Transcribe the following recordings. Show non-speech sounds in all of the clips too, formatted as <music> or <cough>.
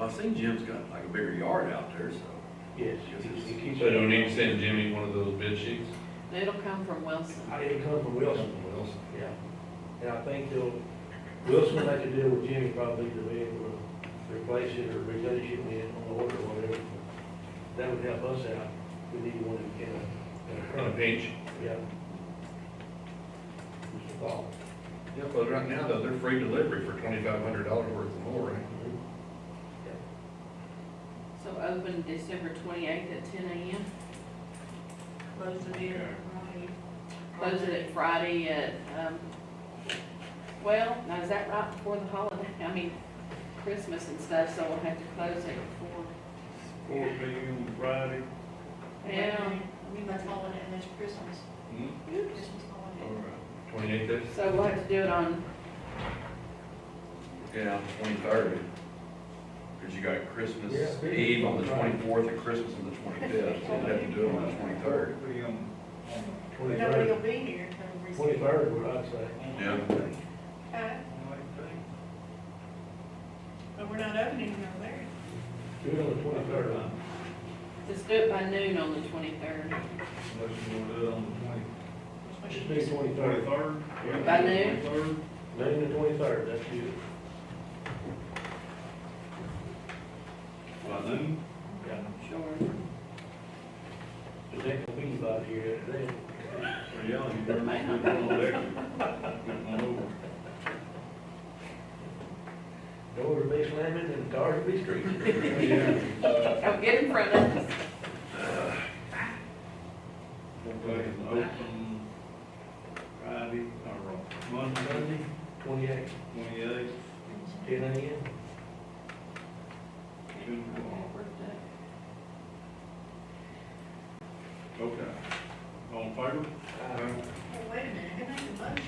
I've seen Jim's got like a bigger yard out there, so. Yes, it it keeps. So do we need to send Jimmy one of those bid sheets? It'll come from Wilson. I- Uh, It comes from Wilson, Wilson. yeah. And I think they'll, Wilson will make a deal with Jimmy probably to be able to replace it or replenish it in on order or whatever. That would help us out. We need one in a, in a On a current, pinch? yeah. Just a thought. Yeah, but right now, though, they're free delivery for twenty-five hundred dollars worth of more, right? So open December twenty-eighth at ten AM, Close the beer, right? close it at Friday at, um, well, now is that right before the holiday? <laughs> I mean, Christmas and stuff, so we'll have to close it before. Four P M Friday. Yeah. I mean, that's holiday, and that's Christmas, Hmm? Christmas All holiday. right. Twenty-eighth is? So we'll have to do it on, Yeah, twenty-third. Cause you got Christmas Yeah, big. Eve on the twenty-fourth and Christmas on the twenty-fifth, so you have to do it on the twenty-third. Four P M. Nobody will Twenty-third, be here for the recess. twenty-third, what I'd say. Yeah. Okay, Uh, But we're not opening over there. Do it on the twenty-third, huh? just do it by noon on the twenty-third. Unless you wanna do it on That's what she Just be said. the twenty, twenty-third, twenty-third. By noon? Twenty-third. noon to twenty-third, that's you. By noon? Yeah. Sure. Cause that can be about here that day. Or yeah, you That might not can. Getting all over. Door to be slamming and cars to be screeching. Don't get in front of us. Okay, open Friday, or Monday, Monday, twenty-eighth, twenty-eighth, ten AM. two o'clock. Okay. All in Well, favor? Oh, wait a minute, who made the motion?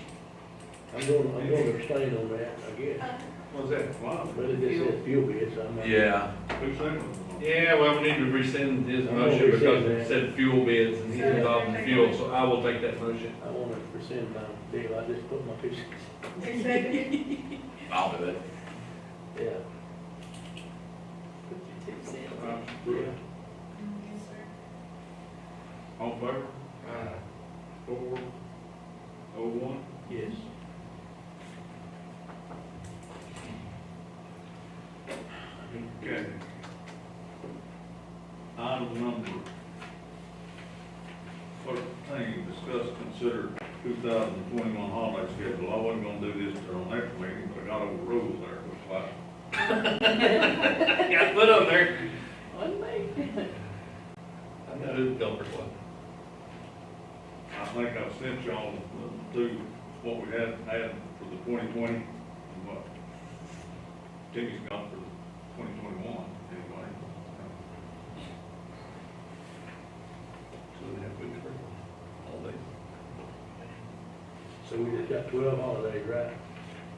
I'm going, I'm going to abstain on that, I guess. What's that? Wow. But it just said fuel bids, I'm not. Yeah, Who seconded it? Yeah, well, we need to rescind his I'm gonna motion because rescind that. it said fuel bids and he's So, involved in okay. fuel, so I will take that motion. I want to present my deal, I just put my fish, Who seconded <laughs> it? I'll do it. yeah. Uh, Yeah. Yes, sir. All in favor? Four, oh one. Yes. Okay. Item number thirteen, discuss, consider two thousand twenty-one holiday schedule. I wasn't gonna do this till next meeting, but I got overruled there, it was like, Got put on there. One day. <laughs> I know who the culprit was. I think I've sent y'all to what we had, had for the twenty twenty, and what Timmy's got for twenty twenty-one, anyway. So we have good for all day. So we just got twelve holidays, right?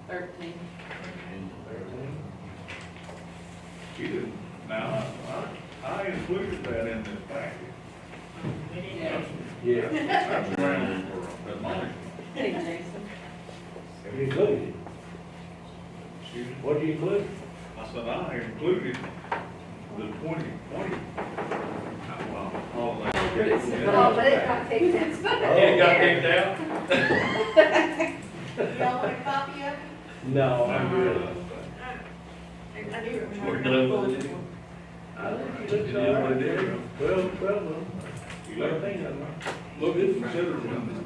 Thirteen. She didn't, now, I, I included that in this package. Yeah. Yeah. That's around for admonishment. Hey, Jason. You included it. Excuse me? What do you include? I said, I included the twenty twenty. Well, all that. Oh, but it got taken. It got kicked out? Y'all want a copy of it? Uh, No, I'm good. Well, I- I do remember. We're done with it. I think It it looks is what all it is. right. Twelve, twelve of them. I think it I'm right. considered when the,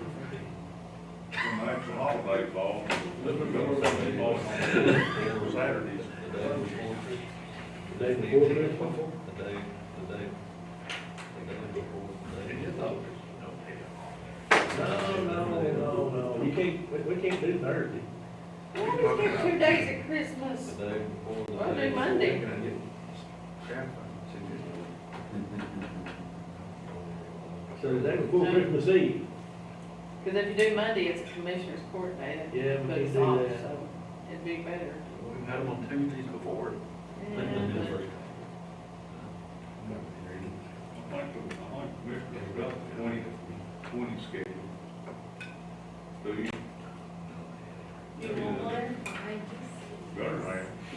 when the actual holiday falls, the holiday falls on Saturdays. The day before Christmas. Oh, No, no, no, no, we can't, we, we can't do Thursday. Why do we get two days at Christmas? Well, do Monday. So the day before No. Christmas Eve, Because if you do Monday, it's Commissioner's Court Day. that Yeah, we can puts do off, that. so It'd be better. We've had them on Tuesdays before. Yeah, I like, the- I like Mr. Russell's twenty, twenty schedule. So you